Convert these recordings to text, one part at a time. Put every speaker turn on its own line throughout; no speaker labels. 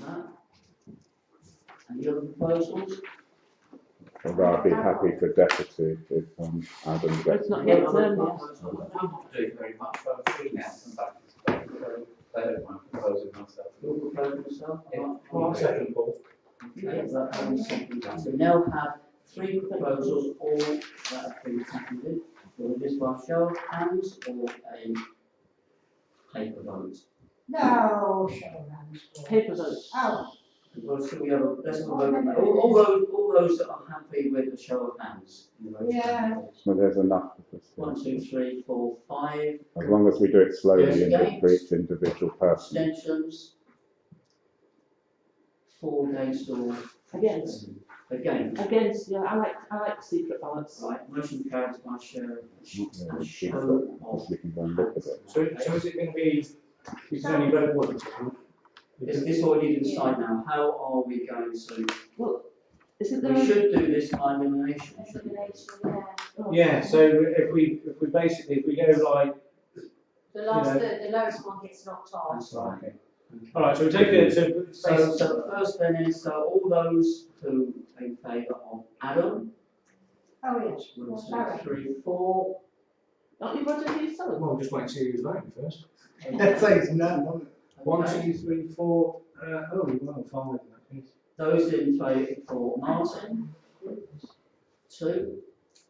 Right. Any other proposals?
Although I'd be happy for deputy if um, Adam gets.
It's not yet turned, yes.
I'm not doing very much, but I'm free now.
Yes, and back to back, so they don't mind proposing myself.
You'll propose yourself?
Yeah.
Well, I'll second.
Paul.
Okay, that one's seconded. So now have three proposals, all that have been seconded. Will this by show of hands or a paper vote?
No, show hands. boy.
Paper votes.
Oh,
Well, so we have, a- let's have a vote. on that. All, all those, all those that are happy with the show of hands. in the vote.
Yeah.
Well, there's enough of us. here.
One, two, three, four, five.
As long as we do it slowly
Yes,
and
thanks.
for each individual person.
Abstentions? Four against or
Against,
against?
against, yeah, I like, I like secret ballots.
Right, motion carries by show,
Yeah,
a
we keep
show
it,
of
As we can go and look at it.
So, so is it going to be, is there any red ones?
Is this already inside now? How are we going to,
Isn't there?
we
a-
should do this by elimination, shouldn't we?
oh.
Yeah, so if we, if we basically, if we go like,
The last,
You
the, the lowest one gets knocked off.
That's right.
all right, so we take it to.
So, so the first then is, so all those who are in favour of Adam,
oh, yes.
one, two, three, four.
Don't you want to do so?
Well, just wait and see who's voting first.
Okay.
says none. One, two, three, four, uh, oh, well, five in that case.
Those in favour for Martin? Two?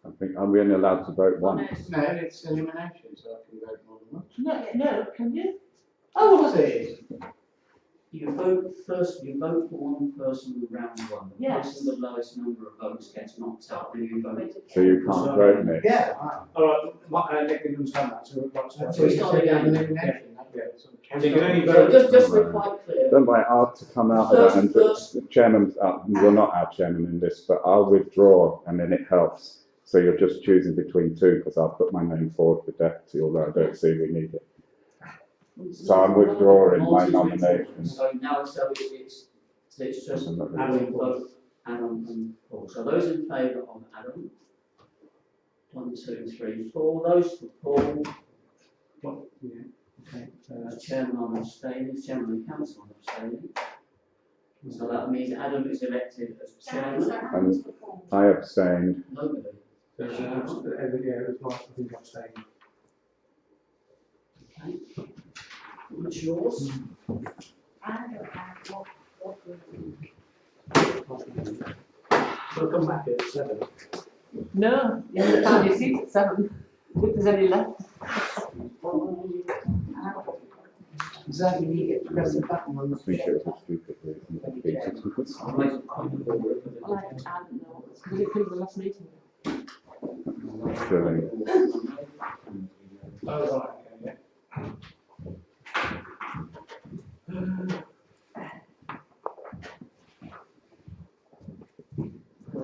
I think, are we only allowed to vote once?
No, it's elimination, so I can vote more than one.
No, no, can you?
Oh, was it?
You vote first, you vote for one person round one. The
Yes.
person with The lowest number of votes gets knocked out, then you vote.
So you can't vote, Nick.
Yeah. All right, my, uh, Nick didn't understand that, so we've got uh, to.
So it's not again.
Elimination, yeah. So you can only
So
vote.
just, just to be quite clear,
Don't worry, I'll to come out of that and the chairman's up, well, not our chairman in this, but I'll withdraw and then it helps. So you're just choosing between two because I'll put my name forward for deputy, although I don't see we need it. So I'm withdrawing my
Martin's withdrawn.
nomination.
So now so it's, it's, it's just
I'm not really-
Adam, vote, Adam and Paul. So those in favour of Adam? One, two, three, four. Those for Paul,
Well, yeah, okay, uh,
uh, chairman on abstaining, chairman and council on abstaining. So that means Adam is elected as chairman.
I abstained.
Nobody.
There's, uh, yeah, it was Mark, I think I'm saying.
What's yours?
I don't have what, what.
We'll come back at seven.
No, you haven't found your seat at seven, if there's any left.
Exactly, you get to press the button on
I think it was a stupid reason to be.
I'll make a point of order for the-
Well, I don't know, because it could be the last meeting.
Surely.
Oh, right, okay, yeah.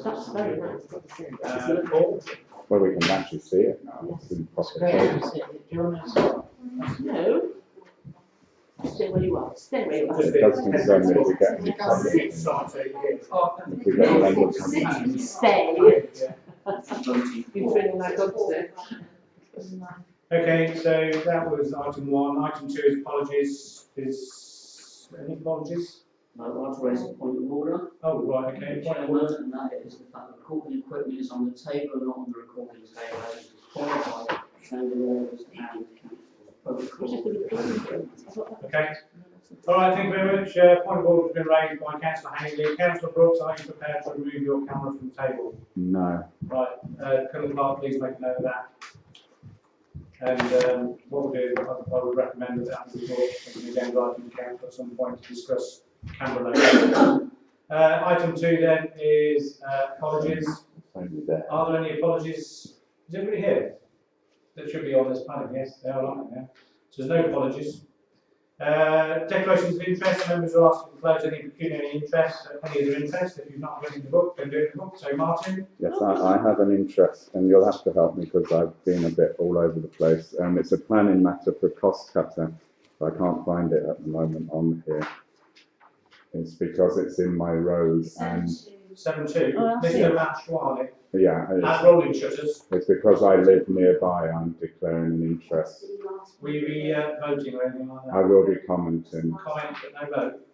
That's very nice.
Uh, Paul?
Well, we can actually see it now. It's in proper focus.
No. Stay where you are, stay where you are.
It does concern me if we get
Uh,
any public. If we get language.
Stay.
Yeah.
You're training like God today.
Okay, so that was item one. Item two is apologies, is, any apologies?
I'd like to raise a point of order.
Oh, right, okay, point of order.
and that is the fact that recording equipment is on the table, not on the recording table, as is required by Chamber laws and council protocol.
Okay. All right, thank you very much. Uh, point of order has been raised by councillor Hayley. Councillor Brooks, are you prepared to remove your camera from the table?
No.
Right, uh, can the clerk please make note of that? And, um, what we'll do, I, I would recommend that after the board, we then go to council at some point to discuss camera location. Uh, item two then is, uh, apologies.
It's only there.
Are there any apologies? Is everybody here? That should be on this panel, yes, they are on it, yeah. So there's no apologies. Uh, declarations of interest, members are asked to disclose any pecuniary interest, any of their interest. If you've not written the book, then do it in the book. So Martin,
Yes, I, I have an interest, and you'll have to help me because I've been a bit all over the place. Um, it's a planning matter for cost cutting, but I can't find it at the moment on here. It's because it's in my road and,
seven two,
Oh, I see.
Mr. Matchwani,
yeah,
at
it's,
Rolling Shutters.
it's because I live nearby, I'm declaring an interest.
Will you be uh, voting or anything like
I
that?
will be commenting.
Comment, but no vote.